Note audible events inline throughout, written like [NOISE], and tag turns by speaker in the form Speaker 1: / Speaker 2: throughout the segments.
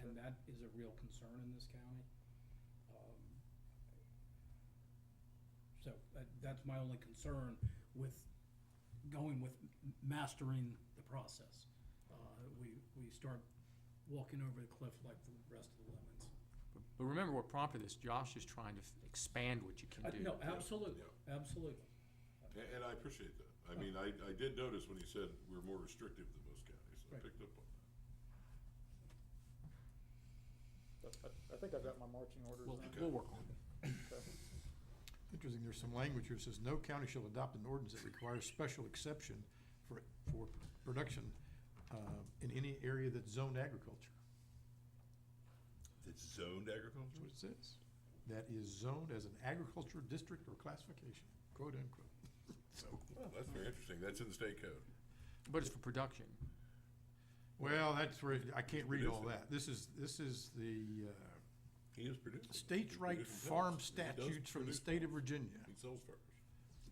Speaker 1: that is a real concern in this county. Um, So that, that's my only concern with going with m- mastering the process. Uh, we, we start walking over the cliff like the rest of the lemons.
Speaker 2: But remember what prompted this, Josh is trying to f- expand what you
Speaker 1: Uh,
Speaker 2: can do.
Speaker 1: No, absolutely,
Speaker 2: [LAUGHS]
Speaker 1: absolutely.
Speaker 3: And, and I appreciate that. I mean, I, I did notice when you said we're more restrictive than most counties. I
Speaker 1: Right.
Speaker 3: picked up on that.
Speaker 4: I- I- I think I've got my marching orders
Speaker 2: We'll,
Speaker 4: now.
Speaker 2: we'll work on it.
Speaker 5: Interesting, there's some language here that says, no county shall adopt an ordinance that requires special exception for, for production uh, in any area that's zoned agriculture.
Speaker 3: It's zoned
Speaker 5: That's
Speaker 3: agriculture?
Speaker 5: what it says. That is zoned as an agriculture district or classification, quote unquote. [LAUGHS] So,
Speaker 3: Well, that's very interesting. That's in the state code.
Speaker 2: But it's for production.
Speaker 5: well, that's where, it- I can't read all
Speaker 3: Producing.
Speaker 5: that. This is, this is the uh,
Speaker 3: He is producing.
Speaker 5: states'
Speaker 3: He's
Speaker 5: right
Speaker 3: producing
Speaker 5: farm
Speaker 3: pills. He does
Speaker 5: statutes from the
Speaker 3: produce
Speaker 5: state of
Speaker 3: pills.
Speaker 5: Virginia,
Speaker 3: He sells farmers.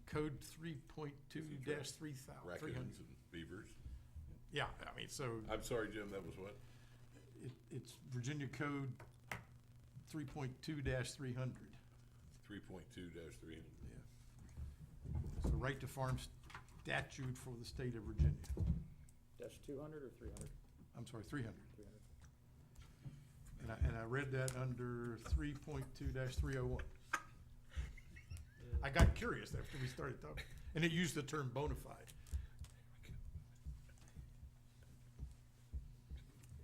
Speaker 5: code three point
Speaker 3: Is
Speaker 5: two
Speaker 3: he trying-
Speaker 5: dash three thou, three
Speaker 3: Raccoons
Speaker 5: hundred.
Speaker 3: and beavers.
Speaker 5: Yeah, I mean, so.
Speaker 3: I'm sorry, Jim, that was what?
Speaker 5: It, it's Virginia Code three point two three hundred.
Speaker 3: Three point two dash three hundred.
Speaker 5: Yeah. It's the right to farm statute for the state of Virginia.
Speaker 4: That's two hundred or three hundred?
Speaker 5: I'm sorry, three hundred.
Speaker 4: Three hundred.
Speaker 5: And I, and I read that under three point two three oh one. I got curious after we started talking, and it used the term bona fide.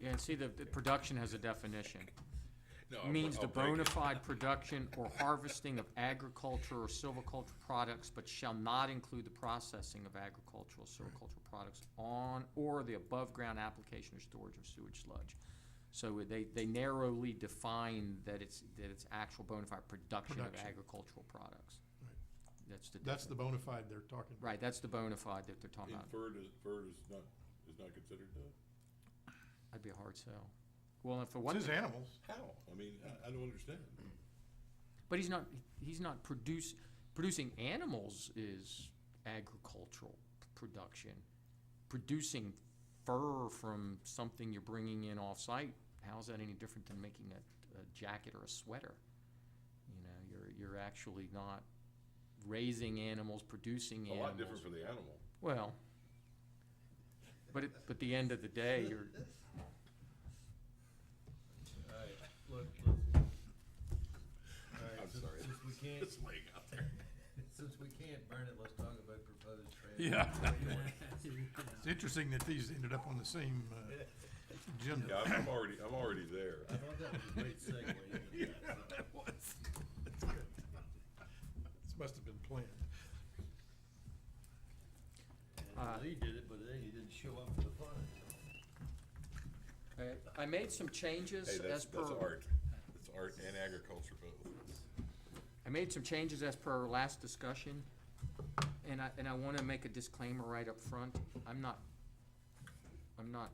Speaker 2: Yeah, and see, the, the production has a definition.
Speaker 3: No, I'll-
Speaker 2: Means the
Speaker 3: I'll break
Speaker 2: bona
Speaker 3: it.
Speaker 2: fide production or harvesting of agriculture or silviculture products, but shall not include the processing of agricultural, silvicultural products on, or the above-ground application or storage of sewage sludge. So they, they narrowly define that it's, that it's actual bona fide production of
Speaker 5: Production.
Speaker 2: agricultural products.
Speaker 5: Right.
Speaker 2: That's the.
Speaker 5: That's the
Speaker 2: difference.
Speaker 5: bona fide they're talking about.
Speaker 2: Right, that's the bona fide that they're talking about.
Speaker 3: Inferred is, inferred is not, is not considered though?
Speaker 2: I'd be a hard sell. Well, and for one
Speaker 5: It says
Speaker 2: thing,
Speaker 5: animals.
Speaker 3: How? I mean, I, I don't understand.
Speaker 2: but he's not, he's not produce, producing animals is agricultural p- production. Producing fur from something you're bringing in off-site, how's that any different than making a, a jacket or a sweater? You know, you're, you're actually not raising animals, producing
Speaker 3: A
Speaker 2: animals.
Speaker 3: lot different for the animal.
Speaker 2: Well, but it, but the end of the day, you're,
Speaker 6: Alright, look, listen.
Speaker 3: I'm
Speaker 6: Alright, since,
Speaker 3: sorry.
Speaker 6: since we can't,
Speaker 3: [LAUGHS] It's laying out there.
Speaker 6: since we can't burn it, let's talk about proposed trans.
Speaker 5: Yeah.
Speaker 1: [LAUGHS]
Speaker 5: It's interesting that these ended up on the same uh, agenda.
Speaker 3: Yeah, I'm- I'm already, I'm already there.
Speaker 6: I thought that was a great
Speaker 5: [LAUGHS]
Speaker 6: segue into that, so.
Speaker 5: That was. That's good. This must have been planned.
Speaker 2: Uh,
Speaker 6: And Lee did it, but then he didn't show up for the fun.
Speaker 2: I- I made some
Speaker 3: Hey,
Speaker 2: changes as
Speaker 3: that's,
Speaker 2: per.
Speaker 3: that's art. That's art and agriculture both.
Speaker 2: I made some changes as per our last discussion, and I, and I wanna make a disclaimer right up front. I'm not, I'm not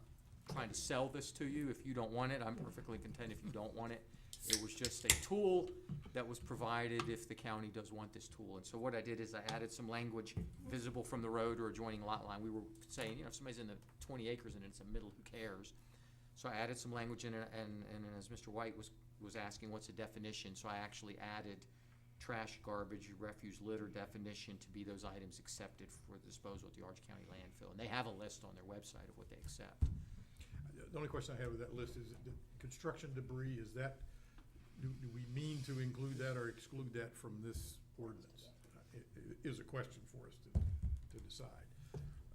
Speaker 2: trying to sell this to you. If you don't want it, I'm perfectly content if you don't want it. It was just a tool that was provided if the county does want this tool. And so what I did is I added some language visible from the road or adjoining lot line. We were saying, you know, if somebody's in the twenty acres and it's in the middle, who cares? So I added some language in it, and, and as Mr. White was, was asking, what's the definition? So I actually added trash, garbage, refuse, litter definition to be those items accepted for disposal at the Orange County landfill. And they have a list on their website of what they accept.
Speaker 5: The only question I have with that list is, the construction debris, is that, do, do we mean to include that or exclude that from this ordinance? I- i- Is a question for us to, to decide.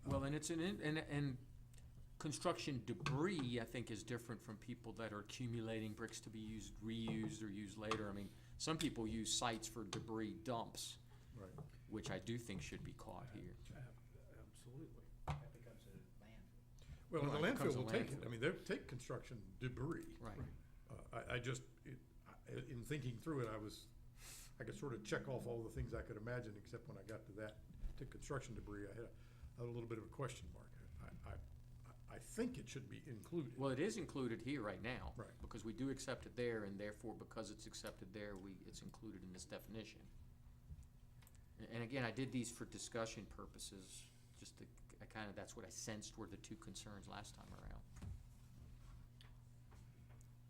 Speaker 2: Well, and it's an, in- and, and construction debris, I think, is different from people that are accumulating bricks to be used, reused, or used later. I mean, some people use sites for debris dumps,
Speaker 5: Right.
Speaker 2: which I do think should be caught here.
Speaker 1: Absolutely.
Speaker 5: Well,
Speaker 2: Well,
Speaker 5: the
Speaker 2: it becomes
Speaker 5: landfill
Speaker 2: a
Speaker 5: will take it,
Speaker 2: landfill.
Speaker 5: I mean, they'll take construction debris.
Speaker 2: Right.
Speaker 5: Uh, I, I just, it, I- in thinking through it, I was, I could sort of check off all the things I could imagine, except when I got to that, to construction debris, I had a, a little bit of a question mark. I, I, I- I think it should be included.
Speaker 2: Well, it is included here right now.
Speaker 5: Right.
Speaker 2: Because we do accept it there, and therefore, because it's accepted there, we, it's included in this definition. A- And again, I did these for discussion purposes, just to, I kind of, that's what I sensed were the two concerns last time around.